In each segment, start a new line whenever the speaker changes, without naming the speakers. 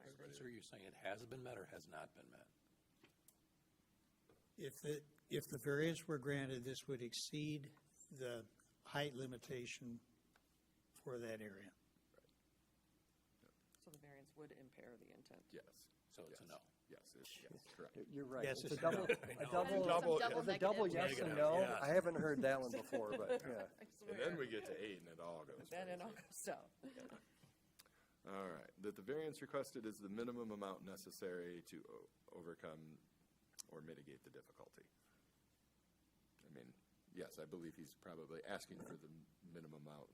right
So you're saying it has been met or has not been met?
If the, if the variance were granted, this would exceed the height limitation for that area.
So the variance would impair the intent.
Yes, so it's a
Yes.
no.
Yes, it's, yes, correct.
You're right.
Yes, it's
It's a double,
no.
a
Double-
double,
double
it's a double yes and
negative.
Negative,
no.
yes.
I haven't heard that one before, but yeah.
I
And
swear.
then we get to eight and it all goes.
Then it all
crazy.
goes down.
All right, that the variance requested is the minimum amount necessary to o- overcome or mitigate the difficulty. I mean, yes, I believe he's probably asking for the minimum amount.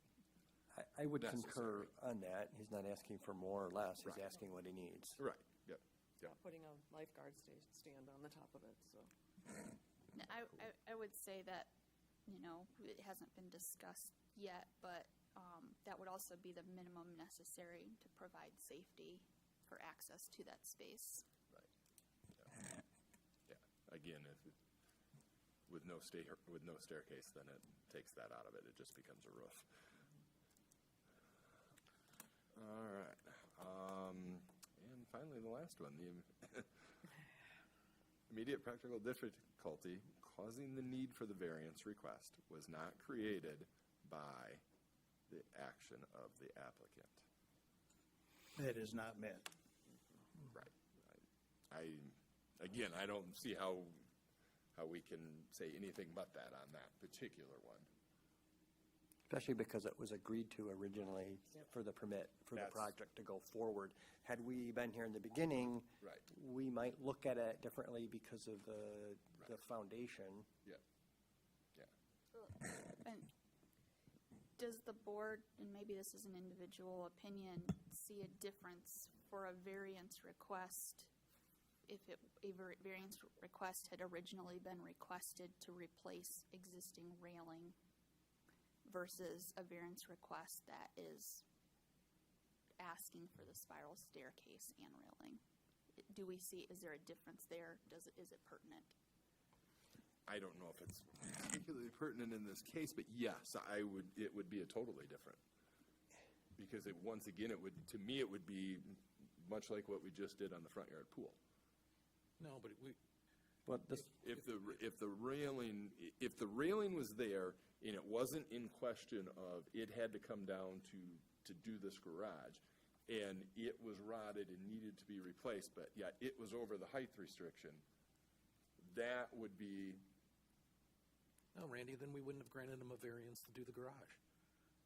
I, I would
Necessary.
concur on that. He's not asking for more or less. He's asking what he needs.
Right, yep, yep.
Putting a lifeguard sta- stand on the top of it, so.
No, I, I, I would say that, you know, it hasn't been discussed yet, but, um, that would also be the minimum necessary to provide safety for access to that space.
Yeah, again, if, it- with no sta, with no staircase, then it takes that out of it, it just becomes a roof. All right, um, and finally, the last one, the immediate practical difficulty causing the need for the variance request was not created by the action of the applicant.
That is not met.
Right. I, again, I don't see how, how we can say anything but that on that particular one.
Especially because it was agreed to originally for the permit, for the
That's-
project to go forward. Had we been here in the beginning,
Right.
we might look at it differently because of the, the foundation.
Yeah. Yeah.
And does the board, and maybe this is an individual opinion, see a difference for a variance request if it, a var- variance request had originally been requested to replace existing railing versus a variance request that is asking for the spiral staircase and railing? Do we see, is there a difference there? Does, it- is it pertinent?
I don't know if it's particularly pertinent in this case, but yes, I would, it would be a totally different. Because it, once again, it would, to me, it would be much like what we just did on the front yard pool.
No, but we,
But this,
If the, if the railing, if the railing was there and it wasn't in question of it had to come down to, to do this garage, and it was rotted and needed to be replaced, but yet it was over the height restriction, that would be,
no, Randy, then we wouldn't have granted him a variance to do the garage.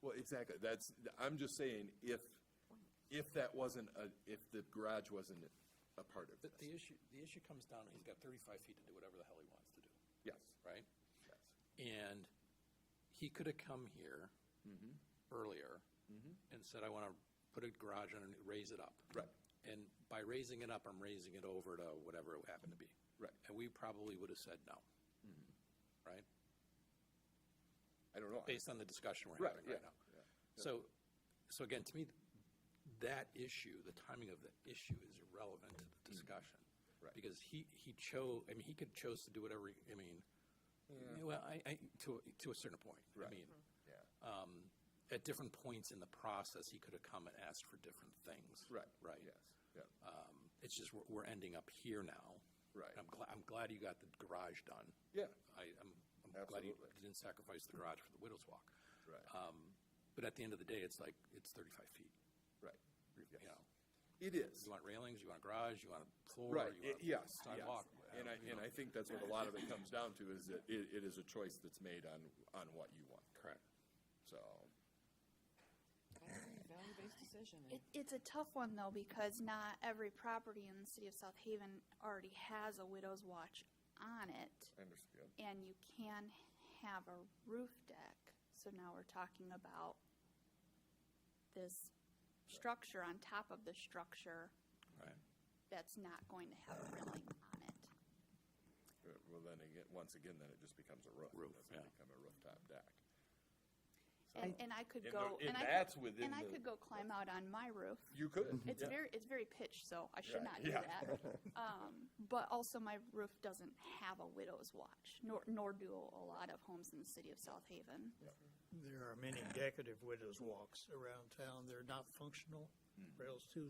well, exactly, that's, I'm just saying, if, if that wasn't a, if the garage wasn't a part of
But the
this.
issue, the issue comes down, to he's got thirty-five feet to do whatever the hell he wants to do,
Yes,
right?
yes,
And he could have come here
Mm-hmm.
earlier and said, I want to put a garage on and raise it up.
Right.
And by raising it up, I'm raising it over to whatever it happened to be.
Right. Mm-hmm.
And we probably would have said no. Right?
I don't know.
based on the discussion we're
Right,
having
yeah,
right now. So, so again, to me, that issue, the timing of the issue is irrelevant to the discussion.
Mm-hmm. Right.
Because he, he chose, I mean, he could chose to do whatever, he- I mean, well, I, I, to, a- to a certain point. I
Right.
mean,
Yeah.
um, at different points in the process, he could have come and asked for different things.
Right.
Right.
Yes, yeah,
Um, It's just, we're, we're ending up here now.
Right.
I'm glad, I'm glad you got the garage done.
yeah,
I, I'm, I'm glad you
Absolutely.
didn't sacrifice the garage for the widow's walk.
right,
Um, but at the end of the day, it's like, it's thirty-five feet,
right, yes.
you know?
It is.
You want railings, you want a garage, you want a floor,
Right,
you
i-
want a
yes, yes.
sidewalk.
And I, and I think that's what a lot of it comes down to, is that it, it is a choice that's made on, on what you want,
Correct.
so.
That's a value-based decision. and
It, it's a tough one though, because not every property in the city of South Haven already has a widow's watch on it,
I understand.
and you can have a roof deck. So now we're talking about this structure on top of the structure
Right.
that's not going to have a railing on it.
Uh, Well, then again, once again, then it just becomes a roof.
Roof,
It
yeah.
doesn't become a rooftop deck.
And, and I could
And
go,
tho-
and
and
I,
that's
could-
within
and I
the-
could go climb out on my roof.
You could.
It's
yeah.
very, it's very pitched, so I should
Right,
not do
yeah.
that. Um, but also my roof doesn't have a widow's watch, nor, nor do a lot of homes in the city of South Haven.
There are many decorative widow's walks around town. They're not functional. Rails too